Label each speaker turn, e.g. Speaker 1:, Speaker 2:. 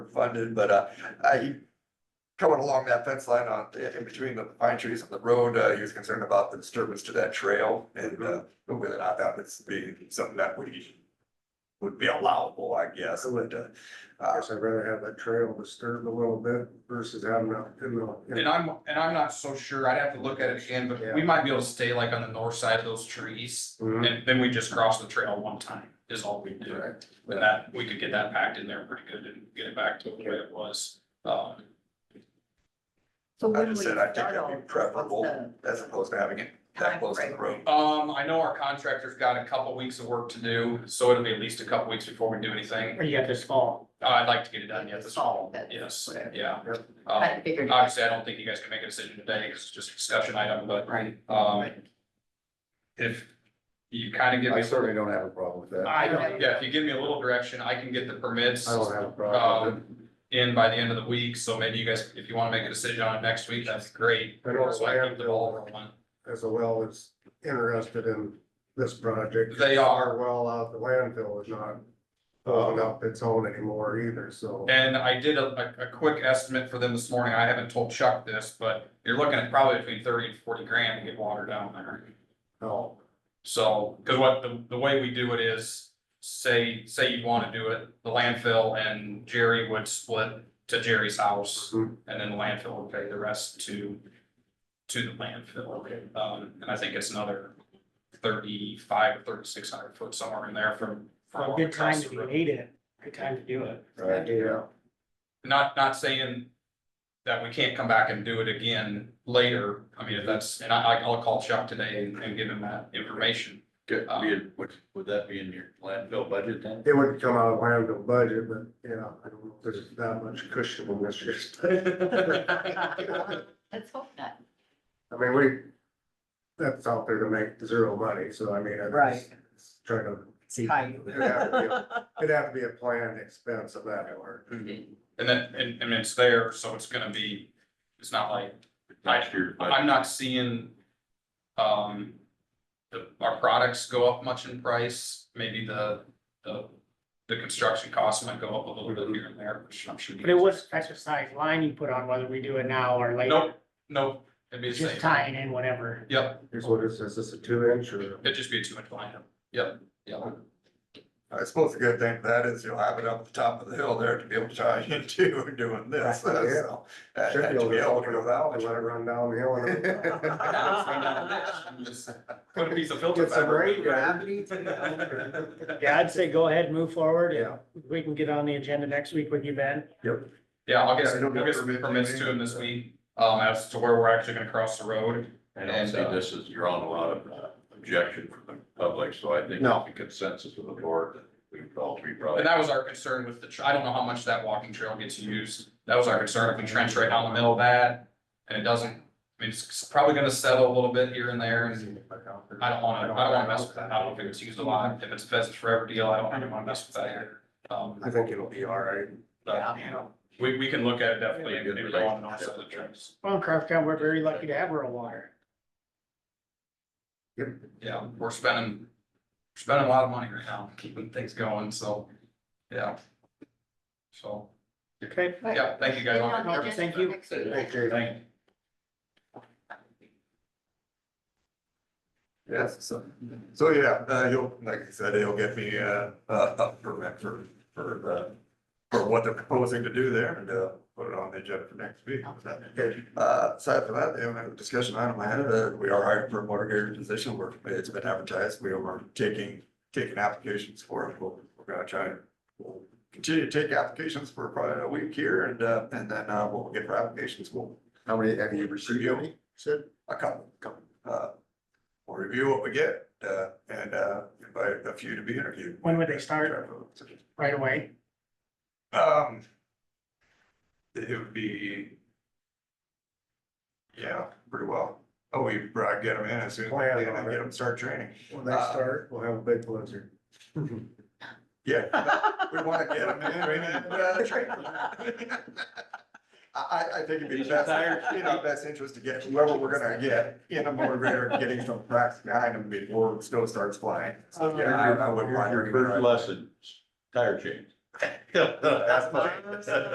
Speaker 1: funded, but uh, I. Coming along that fence line on, in between the pine trees and the road, uh, he was concerned about the disturbance to that trail and uh, whether or not that would be something that would. Would be allowable, I guess, but uh,
Speaker 2: I
Speaker 1: uh,
Speaker 2: guess I'd rather have that trail disturbed a little bit versus having it in
Speaker 3: And
Speaker 2: the.
Speaker 3: I'm, and I'm not so sure, I'd have to look at it again, but we might be able to stay like on the north side of those trees,
Speaker 2: Mhm.
Speaker 3: and then we just cross the trail one time, is all we do. But that, we could get that packed in there pretty good and get it back to the way it was, um,
Speaker 4: So
Speaker 1: I
Speaker 4: when would
Speaker 1: just
Speaker 4: it
Speaker 1: said I think
Speaker 4: start
Speaker 1: that'd
Speaker 4: all
Speaker 1: be
Speaker 4: this?
Speaker 1: preferable
Speaker 4: What's
Speaker 1: as opposed to having it that close to the
Speaker 4: timeframe?
Speaker 1: road.
Speaker 3: Um, I know our contractor's got a couple weeks of work to do, so it'll be at least a couple weeks before we do anything.
Speaker 5: Or you have this fall.
Speaker 3: Uh, I'd like to get it done yet this fall,
Speaker 4: That's
Speaker 3: yes,
Speaker 4: whatever.
Speaker 3: yeah.
Speaker 2: Yep.
Speaker 4: I
Speaker 3: Um,
Speaker 4: figured.
Speaker 3: obviously, I don't think you guys can make a decision today, 'cause it's just a discussion item, but,
Speaker 5: Right.
Speaker 3: um, if you kind of give
Speaker 2: I
Speaker 3: me,
Speaker 2: certainly don't have a problem with that.
Speaker 3: I don't, yeah, if you give me a little direction, I can get the permits
Speaker 2: I don't have a problem. with it.
Speaker 3: um, in by the end of the week, so maybe you guys, if you want to make a decision on it next week, that's great.
Speaker 2: I know,
Speaker 3: So I keep the ball rolling.
Speaker 2: As well as interested in this project.
Speaker 3: They are.
Speaker 2: Our well out the landfill is not pulling up its own anymore either, so.
Speaker 3: And I did a, a, a quick estimate for them this morning. I haven't told Chuck this, but you're looking at probably between thirty and forty grand to get water down there.
Speaker 2: No,
Speaker 3: So, cause what, the, the way we do it is, say, say you wanna do it, the landfill and Jerry would split to Jerry's house.
Speaker 2: Mhm.
Speaker 3: And then the landfill would pay the rest to, to the landfill. Um, and I think it's another thirty-five or thirty-six hundred foot somewhere in there from. from
Speaker 5: A good time
Speaker 3: across the
Speaker 5: to be
Speaker 3: road.
Speaker 5: made it, good time to do it.
Speaker 2: right, yeah,
Speaker 3: not, not saying that we can't come back and do it again later. I mean, if that's, and I, I'll call Chuck today and, and give him that information.
Speaker 6: Good,
Speaker 3: Um,
Speaker 6: would, would- would that be in your landfill budget then?
Speaker 2: it would come out of landfill budget, but yeah, I don't know if there's that much cushion in this year's.
Speaker 4: the- Let's hope not.
Speaker 2: I mean, we, that's out there to make zero money, so I mean. it's-
Speaker 5: Right.
Speaker 2: it's Trying to, it'd have to be, a- it'd have to be a planned expense of that or.
Speaker 3: Mm-hmm. And then, and, and it's there, so it's gonna be, it's not like,
Speaker 6: Last year,
Speaker 3: I'm not seeing, um, the, our products go up much in price. Maybe the, the, the construction costs might go up a little bit here and there, which I'm sure. you
Speaker 5: But it
Speaker 3: guys-
Speaker 5: was exercise line you put on whether we do it now or later,
Speaker 3: Nope, nope, it'd be the
Speaker 5: just
Speaker 3: same.
Speaker 5: tying in whenever.
Speaker 3: Yep,
Speaker 2: Here's what is, is this a two inch or?
Speaker 3: it'd just be a two inch line. Yep, yep.
Speaker 1: I suppose the good thing for that is you'll have it up the top of the hill there to be able to tie into doing this,
Speaker 2: Right, yeah.
Speaker 1: so. uh,
Speaker 2: Should
Speaker 1: and
Speaker 2: be
Speaker 1: to be able to
Speaker 2: open
Speaker 1: go
Speaker 2: it
Speaker 1: that
Speaker 2: out
Speaker 1: way.
Speaker 2: and let it run downhill and.
Speaker 3: Yeah, it's right down the ditch. You just Put a piece of filter
Speaker 2: Get some rain
Speaker 3: fabric.
Speaker 2: gravity.
Speaker 5: Yeah, I'd say go ahead, move forward.
Speaker 2: Yeah.
Speaker 5: We can get on the agenda next week with you, Ben.
Speaker 3: Yeah, I'll get,
Speaker 1: Yeah, I don't
Speaker 3: I'll get some
Speaker 1: permit
Speaker 3: permits to
Speaker 1: anything.
Speaker 3: him this week, um, as to where we're actually gonna cross the road.
Speaker 6: I don't see this as, you're on a lot of uh, objection from the public, so I think
Speaker 2: No.
Speaker 6: the consensus of the board, that we all three
Speaker 3: And
Speaker 6: probably.
Speaker 3: that was our concern with the, tr- I don't know how much that walking trail gets used. That was our concern, if we trench right down the middle of that, and it doesn't, I mean, it's probably gonna settle a little bit here and there, and I don't wanna, I don't wanna mess with that. I don't think it's used a lot. If it's a Pheasants Forever deal, I don't really wanna mess with that either. Um,
Speaker 2: I think it'll be all right.
Speaker 3: but, you know, we, we can look at it definitely,
Speaker 6: Really good
Speaker 3: maybe go on and offset the trips.
Speaker 5: Well, in Crawford, we're very lucky to have rural water.
Speaker 3: Yeah, we're spending, spending a lot of money right now, keeping things going, so, yeah. So,
Speaker 5: Okay.
Speaker 3: yeah, thank you guys.
Speaker 4: Get on the
Speaker 3: all.
Speaker 4: agenda
Speaker 5: Thank
Speaker 4: for
Speaker 5: you.
Speaker 4: next week.
Speaker 2: Okay,
Speaker 3: Thank you.
Speaker 1: Yes, so, so yeah, uh, he'll, like I said, he'll get me, uh, uh, a permit for, for the, for what they're proposing to do there and, uh, put it on the agenda for next week. Uh, aside from that, the only discussion item I had, uh, we are hiring for a motor grader position, we're, it's been advertised, we are taking, taking applications for it, we're, we're gonna try. We'll continue to take applications for probably a week here and, uh, and then, uh, we'll get for applications, we'll
Speaker 2: How many, have you received any? Said,
Speaker 1: a couple, couple, uh, we'll review what we get, uh, and, uh, invite a few to be interviewed.
Speaker 5: When would they start? Right away.
Speaker 1: Um, it would be, yeah, pretty well. Oh, we brought, get them in as soon as we
Speaker 2: Plan
Speaker 1: can
Speaker 2: on
Speaker 1: and
Speaker 2: it.
Speaker 1: get them start training.
Speaker 2: when they start, we'll have a big blizzard.
Speaker 1: Yeah, we want to get them in, and, uh, train them. I, I, I think it'd be
Speaker 6: These
Speaker 1: best,
Speaker 6: retired-
Speaker 1: in our best interest to get whoever we're gonna get in a motor grader, getting some practice behind them before snow starts flying. So, yeah, I I wouldn't mind.
Speaker 6: Your first lesson, tire change.
Speaker 1: That's mine.